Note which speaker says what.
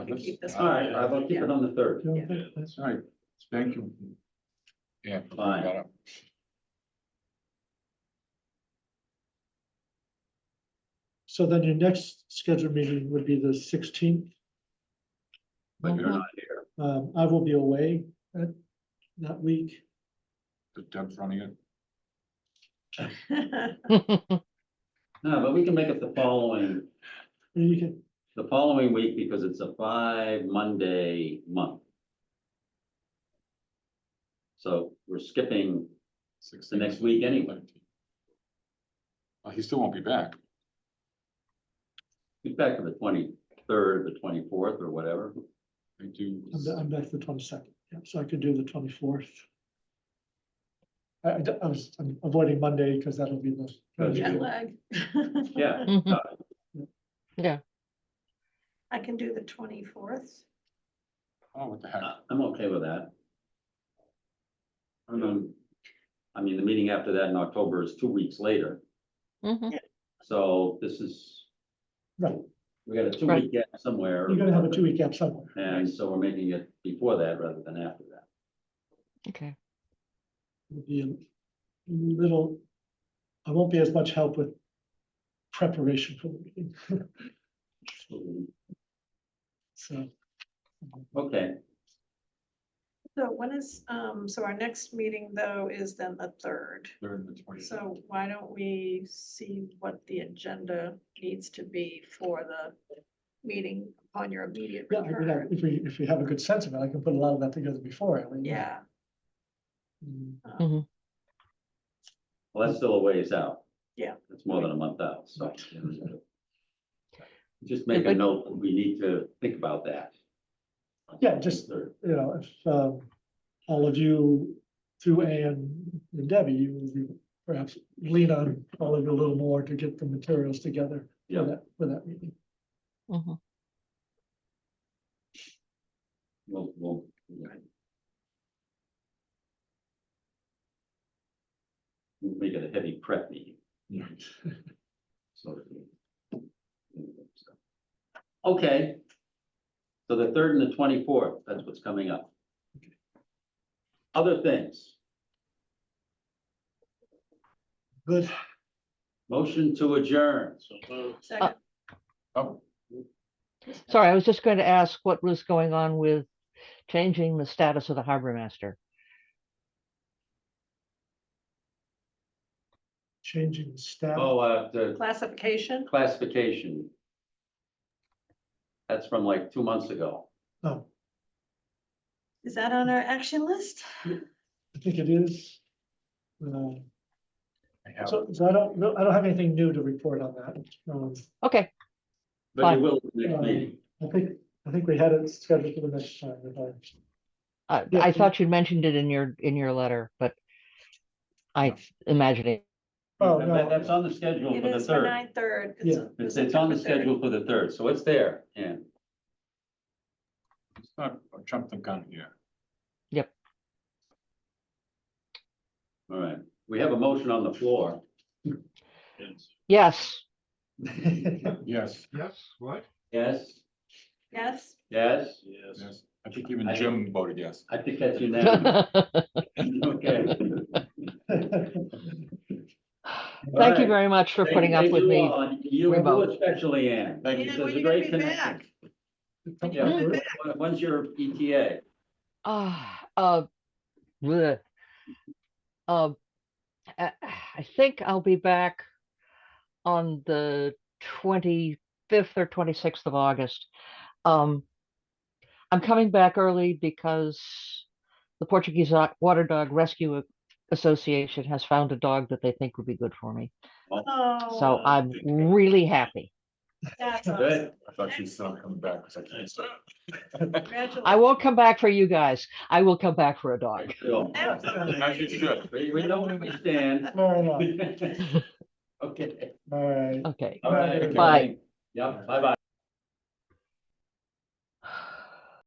Speaker 1: We can keep this
Speaker 2: All right, all right, we'll keep it on the third.
Speaker 1: Yeah.
Speaker 3: That's
Speaker 4: All right, thank you.
Speaker 5: Yeah.
Speaker 2: Fine.
Speaker 5: got it.
Speaker 3: So then your next scheduled meeting would be the sixteenth.
Speaker 2: But you're not here.
Speaker 3: Um, I will be away that, that week.
Speaker 5: Is Deb's running it?
Speaker 2: No, but we can make it the following,
Speaker 3: And You can,
Speaker 2: the following week because it's a five Monday month. So we're skipping,
Speaker 5: Six
Speaker 2: The next week anyway.
Speaker 5: Well, he still won't be back.
Speaker 2: we're back to the twenty-third, the twenty-fourth or whatever.
Speaker 5: They do.
Speaker 3: I'm, ba- I'm back the twenty-second, yeah, so I could do the twenty-fourth. I, I d- I was I'm avoiding Monday because that'll be the.
Speaker 2: Good.
Speaker 3: Yeah,
Speaker 1: jet lag.
Speaker 2: Yeah,
Speaker 6: Mhm.
Speaker 1: I can do the twenty-fourth.
Speaker 5: Oh, what the heck?
Speaker 2: I- I'm okay with that. I mean, I mean, the meeting after that in October is two weeks later,
Speaker 6: Mhm.
Speaker 2: so this is,
Speaker 3: Right,
Speaker 2: we got a two-week gap somewhere.
Speaker 3: you're gonna have a two-week gap somewhere.
Speaker 2: And so we're making it before that rather than after that.
Speaker 6: Okay.
Speaker 3: It'll Be a little, I won't be as much help with preparation for the meeting, so.
Speaker 2: Okay,
Speaker 1: So when is, um, so our next meeting though is then the third.
Speaker 5: They're in the twenty.
Speaker 1: So why don't we see what the agenda needs to be for the meeting upon your immediate
Speaker 3: Yeah, I mean, I-
Speaker 1: return?
Speaker 3: if we, if we have a good sense of it, I can put a lot of that together before. I mean,
Speaker 1: Yeah,
Speaker 3: mm,
Speaker 2: Hmm. well, that's still a ways out.
Speaker 1: Yeah.
Speaker 2: That's more than a month out, so. Just
Speaker 6: It
Speaker 2: make a
Speaker 6: would-
Speaker 2: note, that we need to think about that.
Speaker 3: Yeah, just- You know, if um, all of you through Ann and Debbie, you you perhaps lean on all of you a little more to get the materials together
Speaker 2: Yeah.
Speaker 3: for that, for that meeting.
Speaker 6: Mhm.
Speaker 2: We'll, we'll. We'll Make it a heavy prep meeting. So. Okay. So the third and the twenty-fourth, that's what's coming up. Other things,
Speaker 3: Good,
Speaker 2: motion to adjourn.
Speaker 1: Um, second,
Speaker 2: Uh,
Speaker 5: Oh,
Speaker 6: Sorry, I was just going to ask what was going on with changing the status of the harbor master.
Speaker 3: changing the staff.
Speaker 2: Oh, uh, the
Speaker 1: classification,
Speaker 2: classification. That's from like two months ago.
Speaker 3: Oh,
Speaker 1: is that on our action list?
Speaker 3: I think it is. Uh,
Speaker 5: I have-
Speaker 3: So, so I don't, no, I don't have anything new to report on that. Um,
Speaker 6: Okay,
Speaker 2: But
Speaker 6: Fine.
Speaker 2: you will at the next meeting.
Speaker 3: I think, I think we had it scheduled for the next time. if I-
Speaker 6: I,
Speaker 3: Yeah,
Speaker 6: I
Speaker 3: you-
Speaker 6: thought you mentioned it in your, in your letter, but I imagine it.
Speaker 3: Oh,
Speaker 2: That-
Speaker 3: no.
Speaker 2: That's on the schedule
Speaker 1: It
Speaker 2: Oh, for the
Speaker 1: is for
Speaker 2: third.
Speaker 1: nine third.
Speaker 3: Yeah.
Speaker 2: It's, it's on the schedule for the third, so it's there, yeah.
Speaker 5: It's not, I jumped the gun here.
Speaker 2: All right, we have a motion on the floor.
Speaker 6: Yes.
Speaker 5: Yes,
Speaker 4: Yes, what?
Speaker 2: Yes,
Speaker 1: Yes,
Speaker 2: yes,
Speaker 4: Yes.
Speaker 5: yes. I think even
Speaker 2: I-
Speaker 5: Jim voted yes.
Speaker 2: I think that's unanimous. Okay.
Speaker 6: Thank you very much for putting up
Speaker 2: Thank
Speaker 6: with
Speaker 2: you
Speaker 6: me.
Speaker 2: all, and You you
Speaker 6: remote.
Speaker 2: especially, Ann.
Speaker 5: Thank
Speaker 1: Yeah,
Speaker 2: This
Speaker 1: when
Speaker 2: is a
Speaker 1: you gonna
Speaker 2: great
Speaker 1: be
Speaker 2: connection. Yeah,
Speaker 1: When you
Speaker 2: when- when- when's your E ETA?
Speaker 6: Ah, uh, bleh. Uh, I I think I'll be back on the twenty-fifth or twenty-sixth of August. Um, I'm coming back early because the Portuguese O- Water Dog Rescue Association has found a dog that they think would be good for me. So
Speaker 1: Oh,
Speaker 6: I'm really happy.
Speaker 1: that's
Speaker 2: Good.
Speaker 1: awesome.
Speaker 5: I thought she was not coming back because I can't stop.
Speaker 6: I
Speaker 1: Congratulations.
Speaker 6: won't come back for you guys. I will come back for a dog.
Speaker 2: So,
Speaker 1: Excellent.
Speaker 5: As you should.
Speaker 2: We, we know where we stand.
Speaker 3: Fair enough.
Speaker 2: Okay,
Speaker 3: All right.
Speaker 6: Okay.
Speaker 2: all right.
Speaker 6: Bye.
Speaker 2: everybody. Yep, bye-bye.